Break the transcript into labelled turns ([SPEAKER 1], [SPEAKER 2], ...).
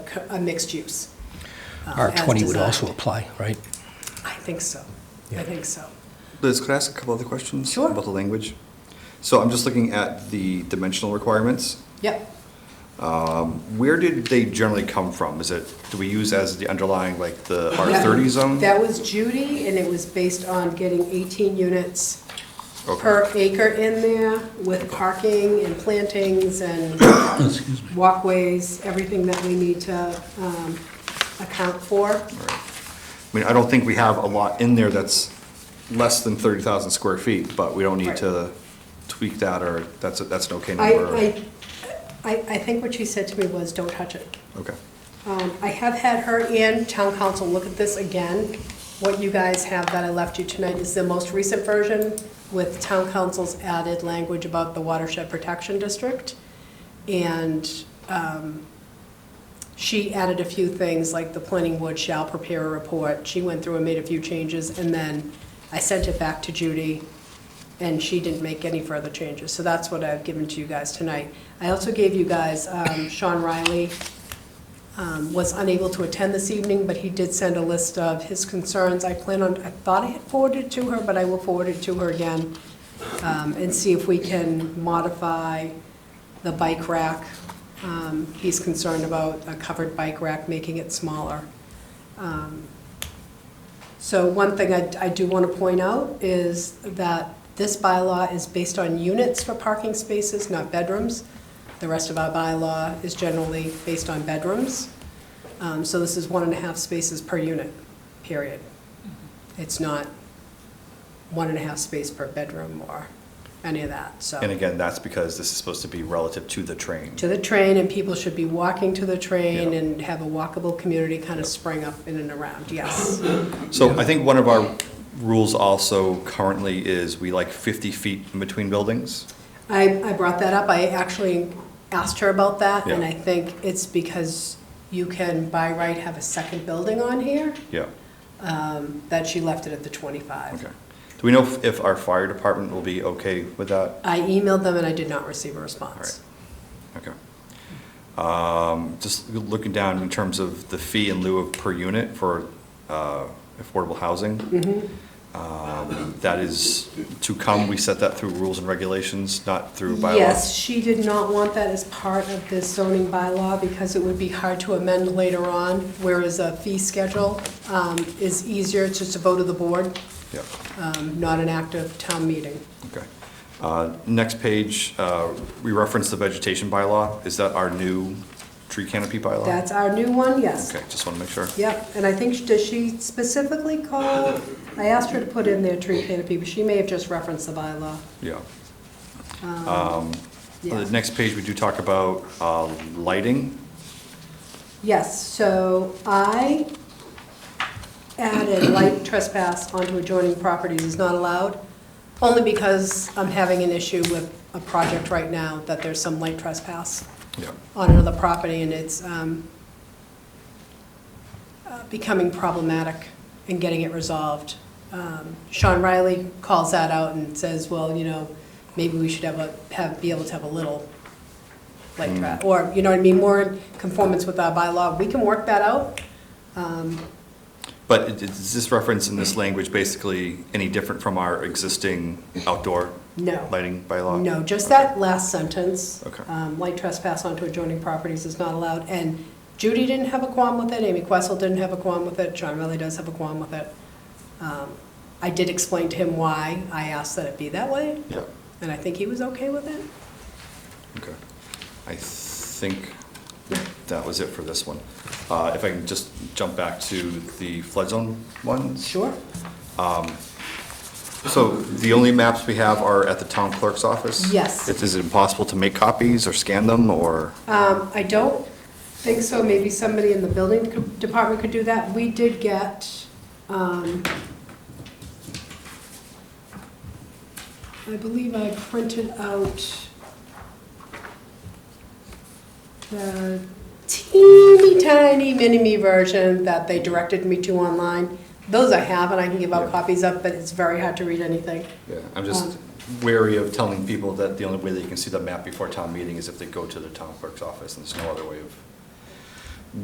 [SPEAKER 1] co- a mixed use. um, as
[SPEAKER 2] R20 would
[SPEAKER 1] designed.
[SPEAKER 2] also apply, right?
[SPEAKER 1] I think so. I
[SPEAKER 2] Yeah.
[SPEAKER 1] think so.
[SPEAKER 3] Liz, could I ask a couple other questions?
[SPEAKER 1] Sure.
[SPEAKER 3] About the language? So I'm just looking at the dimensional requirements.
[SPEAKER 1] Yep.
[SPEAKER 3] Where did they generally come from? Is it, do we use as the underlying, like, the
[SPEAKER 1] That-
[SPEAKER 3] R30 zone?
[SPEAKER 1] That was Judy, and it was based on getting 18 units
[SPEAKER 3] Okay.
[SPEAKER 1] per acre in there with parking and plantings and walkways, everything that we need to um, account for.
[SPEAKER 3] I mean, I don't think we have a lot in there that's less than 30,000 square feet, but we don't need
[SPEAKER 1] Right.
[SPEAKER 3] to tweak that, or that's, a- that's an okay
[SPEAKER 1] I,
[SPEAKER 3] number? or-
[SPEAKER 1] I, I I think what she said to me was, don't touch it.
[SPEAKER 3] Okay,
[SPEAKER 1] Um, I have had her and town council look at this again. What you guys have that I left you tonight is the most recent version with town council's added language about the watershed protection district. And um, she added a few things, like the planning board shall prepare a report. She went through and made a few changes, and then I sent it back to Judy, and she didn't make any further changes. So that's what I've given to you guys tonight. I also gave you guys um, Sean Riley um, was unable to attend this evening, but he did send a list of his concerns. I plan on, I thought I had forwarded it to her, but I will forward it to her again um, and see if we can modify the bike rack. Um, He's concerned about a covered bike rack, making it smaller. So one thing I, I do want to point out is that this bylaw is based on units for parking spaces, not bedrooms. The rest of our bylaw is generally based on bedrooms. Um, so this is one and a half spaces per unit, period. It's not one and a half space per bedroom or any of that, so.
[SPEAKER 3] and again, that's because this is supposed to be relative to the train.
[SPEAKER 1] To the train, and people should be walking to the train
[SPEAKER 3] Yeah.
[SPEAKER 1] and have a walkable community kind of spring up in and around, yes.
[SPEAKER 3] So I think one of our rules also currently is we like 50 feet in between buildings.
[SPEAKER 1] I, I brought that up, I actually asked her about that, and
[SPEAKER 3] Yeah.
[SPEAKER 1] I think it's because you can by right have a second building on here,
[SPEAKER 3] Yeah,
[SPEAKER 1] that she left it at the twenty-five.
[SPEAKER 3] okay. Do we know if- if our fire department will be okay with that?
[SPEAKER 1] I emailed them and I did not receive a response.
[SPEAKER 3] Okay. Um, Just looking down in terms of the fee in lieu of per unit for uh, affordable housing. Um, That is to come, we set that through rules and regulations, not through bylaws.
[SPEAKER 1] Yes, she did not want that as part of this zoning bylaw because it would be hard to amend later on, whereas a fee schedule um, is easier, it's just a vote of the board,
[SPEAKER 3] Yep,
[SPEAKER 1] um, not an active town meeting.
[SPEAKER 3] okay. Uh, Next page, uh, we reference the vegetation bylaw. Is that our new tree canopy bylaw?
[SPEAKER 1] That's our new one, yes.
[SPEAKER 3] Okay, just want to make sure.
[SPEAKER 1] Yep, and I think, does she specifically call, I asked her to put in there tree canopy, but she may have just referenced the bylaw.
[SPEAKER 3] Yeah.
[SPEAKER 1] Um,
[SPEAKER 3] Um,
[SPEAKER 1] Yeah.
[SPEAKER 3] The next page, we do talk about uh, lighting.
[SPEAKER 1] Yes, so I added light trespass onto adjoining properties is not allowed, only because I'm having an issue with a project right now that there's some light trespass.
[SPEAKER 3] Yeah.
[SPEAKER 1] on another property, and it's um, uh, becoming problematic and getting it resolved. Um, Sean Riley calls that out and says, well, you know, maybe we should have a, have, be able to have a little light trap, or, you know what I mean, more in conformance with our bylaw. We can work that out.
[SPEAKER 3] But it- is this reference in this language basically any different from our existing outdoor
[SPEAKER 1] No.
[SPEAKER 3] lighting bylaw?
[SPEAKER 1] No, just that last sentence.
[SPEAKER 3] Okay.
[SPEAKER 1] Um, Light trespass onto adjoining properties is not allowed, and Judy didn't have a qualm with it, Amy Questle didn't have a qualm with it, John Riley does have a qualm with it. Um, I did explain to him why I asked that it be that way,
[SPEAKER 3] Yeah,
[SPEAKER 1] and I think he was okay with it.
[SPEAKER 3] okay. I think that was it for this one. Uh, If I can just jump back to the flood zone ones.
[SPEAKER 1] Sure.
[SPEAKER 3] So the only maps we have are at the town clerk's office?
[SPEAKER 1] Yes.
[SPEAKER 3] Is is it impossible to make copies or scan them, or?
[SPEAKER 1] Um, I don't think so, maybe somebody in the building co- department could do that. We did get, um, I believe I printed out the teeny tiny mini-me version that they directed me to online. Those I have, and I can give out
[SPEAKER 3] Yeah.
[SPEAKER 1] copies of, but it's very hard to read anything.
[SPEAKER 3] Yeah, I'm just wary of telling people that the only way they can see the map before town meeting is if they go to the town clerk's office, and there's no other way of